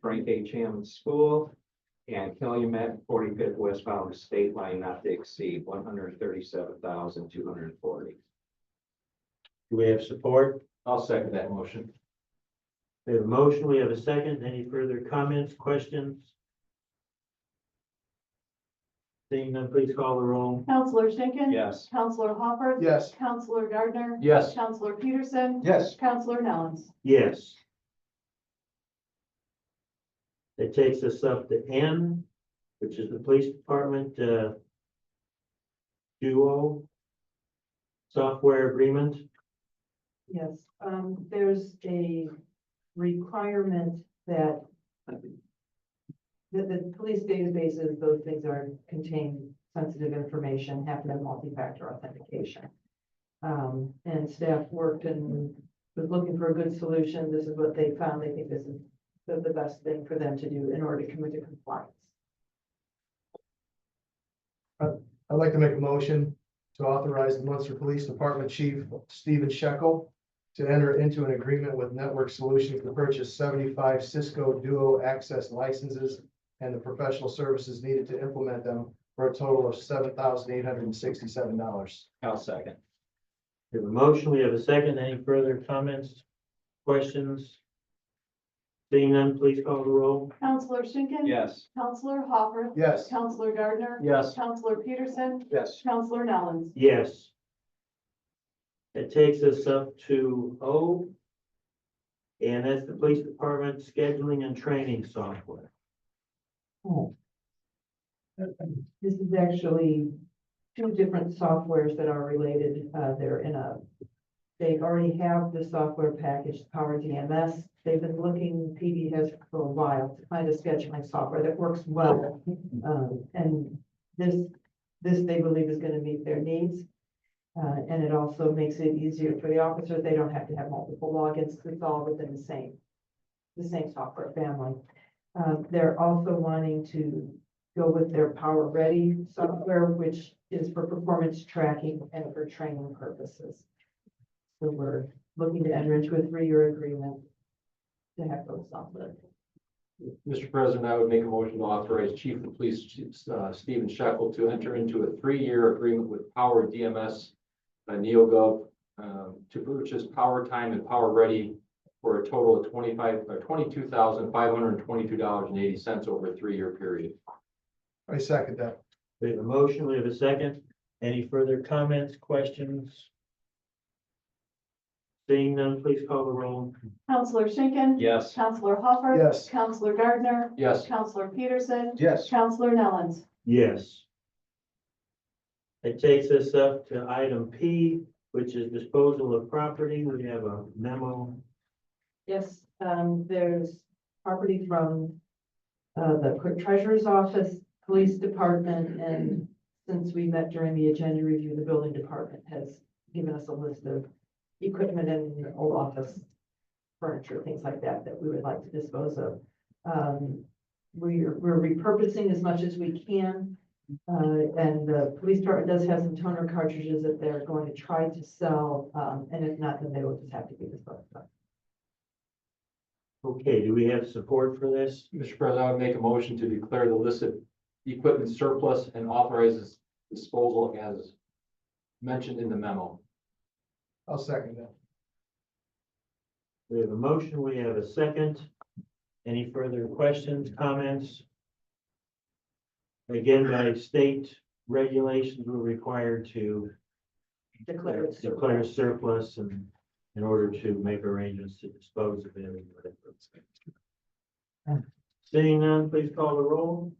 Frank H. Hammond School, and Calumet Forty-Fifth Westbound State Line not to exceed one hundred thirty-seven thousand two hundred forty. Do we have support? I'll second that motion. We have a motion, we have a second. Any further comments, questions? Seeing none, please call the roll. Counselor Schinkin. Yes. Counselor Hopper. Yes. Counselor Gardner. Yes. Counselor Peterson. Yes. Counselor Nellens. Yes. That takes us up to N, which is the police department, uh, duo software agreement. Yes, um, there's a requirement that that the police databases, those things are contain sensitive information, have no multi-factor authentication. Um, and staff worked and was looking for a good solution. This is what they found. They think this is the, the best thing for them to do in order to commit to compliance. I'd like to make a motion to authorize the Munster Police Department Chief Stephen Shekel to enter into an agreement with Network Solutions to purchase seventy-five Cisco Duo Access licenses and the professional services needed to implement them for a total of seven thousand eight hundred and sixty-seven dollars. I'll second. We have a motion, we have a second. Any further comments, questions? Seeing none, please call the roll. Counselor Schinkin. Yes. Counselor Hopper. Yes. Counselor Gardner. Yes. Counselor Peterson. Yes. Counselor Nellens. Yes. It takes us up to O. And that's the police department scheduling and training software. Oh. This is actually two different softwares that are related. Uh, they're in a, they already have the software package, Power DMS. They've been looking, PD has for a while to find a scheduling software that works well. Um, and this, this they believe is gonna meet their needs. Uh, and it also makes it easier for the officers. They don't have to have multiple logins. It's all within the same, the same software family. Uh, they're also wanting to go with their Power Ready software, which is for performance tracking and for training purposes. So we're looking to enter into a three-year agreement to have those software. Mr. President, I would make a motion to authorize Chief of Police uh, Stephen Shekel to enter into a three-year agreement with Power DMS uh, NeoGov um, to purchase Power Time and Power Ready for a total of twenty-five, or twenty-two thousand, five hundred and twenty-two dollars and eighty cents over a three-year period. I second that. We have a motion, we have a second. Any further comments, questions? Seeing none, please call the roll. Counselor Schinkin. Yes. Counselor Hopper. Yes. Counselor Gardner. Yes, Counselor Peterson. Yes. Counselor Nellens. Yes. It takes us up to item P, which is disposal of property. We have a memo. Yes, um, there's property from uh, the clerk treasurer's office, police department, and since we met during the agenda review, the building department has given us a list of equipment and old office furniture, things like that, that we would like to dispose of. Um, we're, we're repurposing as much as we can. Uh, and the police department does have some toner cartridges that they're going to try to sell, um, and if not, then they will just have to be disposed of. Okay, do we have support for this? Mr. President, I would make a motion to declare the listed equipment surplus and authorizes disposal as mentioned in the memo. I'll second that. We have a motion, we have a second. Any further questions, comments? Again, by state regulations, we're required to Declare it surplus. declare surplus and in order to make arrangements to dispose of it. and whatever. Seeing none, please call the roll.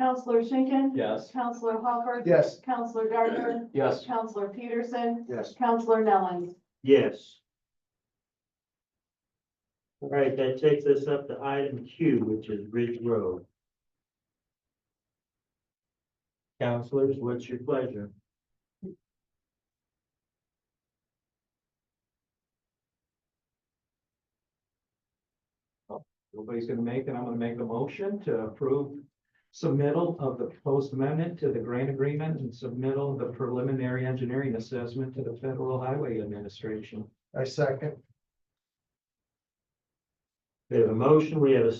Counselor Schinkin. Yes. Counselor Hopper. Yes. Counselor Gardner. Yes, Counselor Peterson. Yes. Counselor Nellens. Yes. All right, that takes us up to item Q, which is Ridge Road. Counselors, what's your pleasure? Nobody's gonna make it. I'm gonna make a motion to approve submittal of the proposed amendment to the grant agreement and submittal of the preliminary engineering assessment to the Federal Highway Administration. I second. We have a motion, we have a